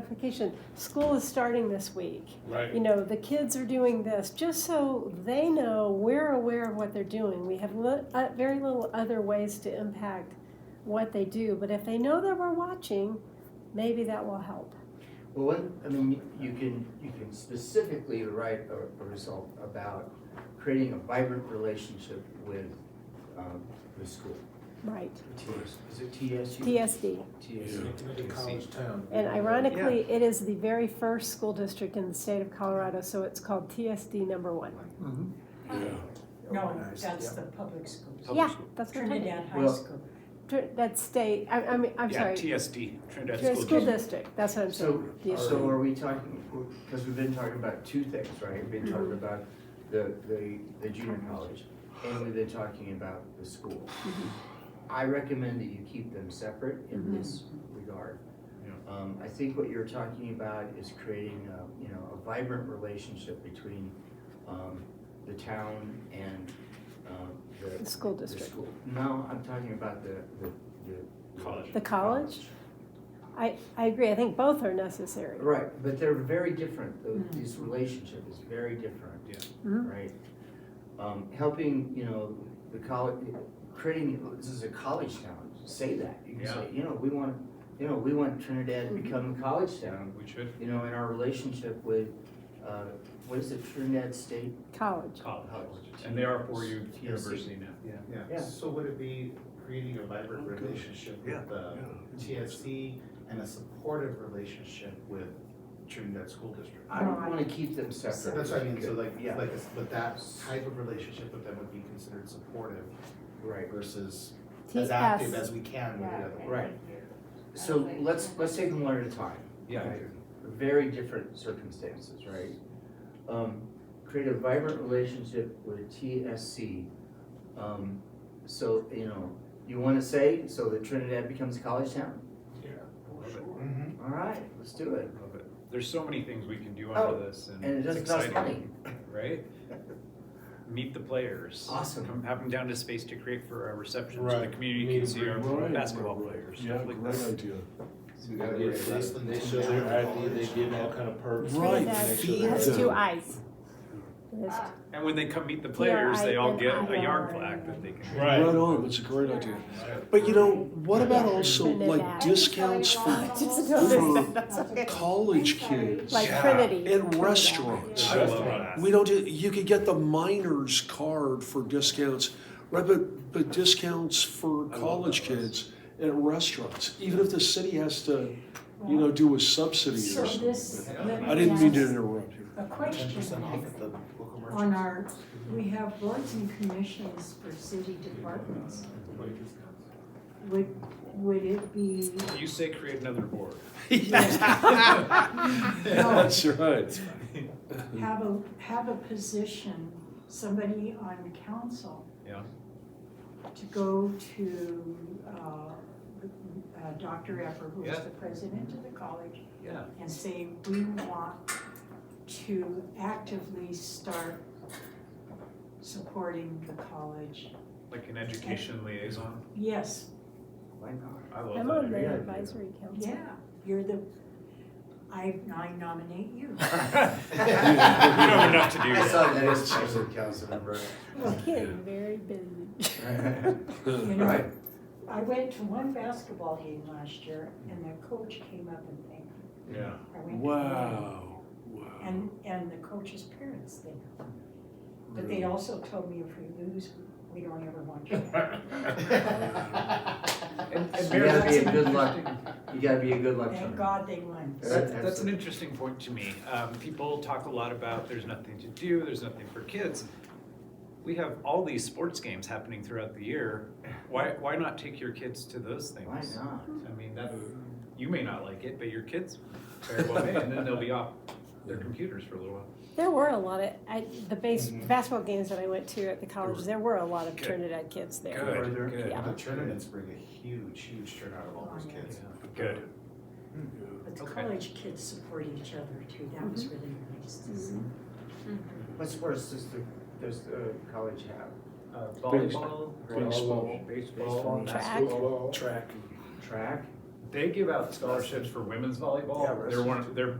notification, school is starting this week. You Right, know, the kids are doing this, just so they know we're aware of what they're doing. We have li- uh, very little other ways to impact what they do, but if they know that we're watching, maybe that will help. Well, one, I mean, you can, you can specifically write a, a result about creating a vibrant relationship with, um, the school, Right. TS, is it TSU? TSD. TSU. Community college town. And ironically, it is the very first school district in the state of Colorado, so it's called TSD number one. Mhm. yeah. No, Organized, that's yeah. the public schools. Oh, Public Yeah, school. that's what I'm talking Trinidad High Well- School. about. Tr- That's state, I, I mean, I'm Yeah, sorry. TSD, Trinidad Tr- School School District. district, that's what I'm So, saying. Yeah. so are we talking, because we've been talking about two things, right? We've been talking about the, the, the junior college, and we've been talking about the school. I recommend that you keep them separate in this regard. Um, I think what you're talking about is creating a, you know, a vibrant relationship between, um, the town and, um, The the, school the district. school. No, I'm talking about the, the, the. College. The college? I, I agree, I think both are necessary. Right, but they're very different, Tho- Mhm. this relationship is very different. Yeah. Mhm. Right? Um, helping, you know, the college, creating, this is a college town, say that, you can say, you know, we want, you know, we want Trinidad to Mm-hmm. become a college town, We should. you know, in our relationship with, uh, what is it, Trinidad State? College. College. And they are four-year TSC. university now. Yeah. Yeah, so would it be creating a vibrant relationship Yeah. with uh, the TSC and a supportive relationship with Trinidad School District? I No, don't I- wanna keep them separate. That's what I mean, so Good. like, Yeah, like, it's- but that type of relationship with them would be considered supportive right. versus as active TS, as we can with the other. one. Right. So let's, let's take them one at a time. Yeah. Right. Very different circumstances, right? Um, create a vibrant relationship with TSC. Um, so, you know, you wanna say, so that Trinidad becomes a college town? Love it, Mhm. All right, let's do it. love it. There's so many things we can do Oh, under this Mm, and And it it's doesn't cost money. exciting, right? Meet the players. Awesome. Come, have them down to space to create for our reception so the Right. community can see our Right. basketball players. Yeah, stuff like that. great idea. We gotta They- raise They wrestling they teams show their now. ID, they give all kind of perks. Right. to make sure It they're- has two eyes. And when they come meet the players, they all get a yard T R I N I R. plaque that they can. Right Right. on, that's a great idea. But you know, what about also like discounts for Just Mhm. noticed that, that's okay. college kids? Like Yeah. Trinity. And restaurants. I love that. We don't, do. you could get the miner's card for discounts, right, but, but discounts for college kids at restaurants, even if the city has to, you know, do a subsidy So or something. this. let me I didn't mean to ask interrupt you. A Ten percent off question at the local on merchants. our, Mm-hmm. we have boards and commissions for city departments. Would, would it be, You say create another board. no, That's right. have a, have a position, somebody on council Yeah. to go to, uh, uh, Dr. Epper, who is Yeah. the president of the college, Yeah. and say, we want to actively start supporting the college. Like an education liaison. Yes, Why not? I love that. I'm on idea. the advisory council. yeah, you're the, I, I nominate you. You know enough to do I that. saw that as president council member. Getting very busy. You Right. know, I went to one basketball game last year and the coach came up and thanked me. Yeah. I went to one. Wow, wow. And, and the coach's parents think. But they also told me if we lose, we don't ever want you back. And, and You Mayor, gotta be that's a an good luck, interesting, you gotta be a good luck Thank charm. God they won. that's, that's an interesting point to me. Um, people talk a lot about there's nothing to do, there's nothing for kids. We have all these sports games happening throughout the year. Why, why not take your kids to those Why things? not? I mean, that, you may not like it, but your kids very well may, and then they'll be off their computers for a little while. There were a lot of, I, the base, Mm-hmm. basketball games that I went to at the college, there were a lot of Good. Trinidad kids there. Good, Further. good, Yeah. The tournaments bring a huge, huge turnout of all those kids. good. But the Okay. college kids support each other too, that was really nice to see. What sports does the, does the college have? Uh, volleyball, Baseball. baseball, baseball, Track. basketball, Track. Track? They give out scholarships for women's volleyball. Yeah, They're one, they're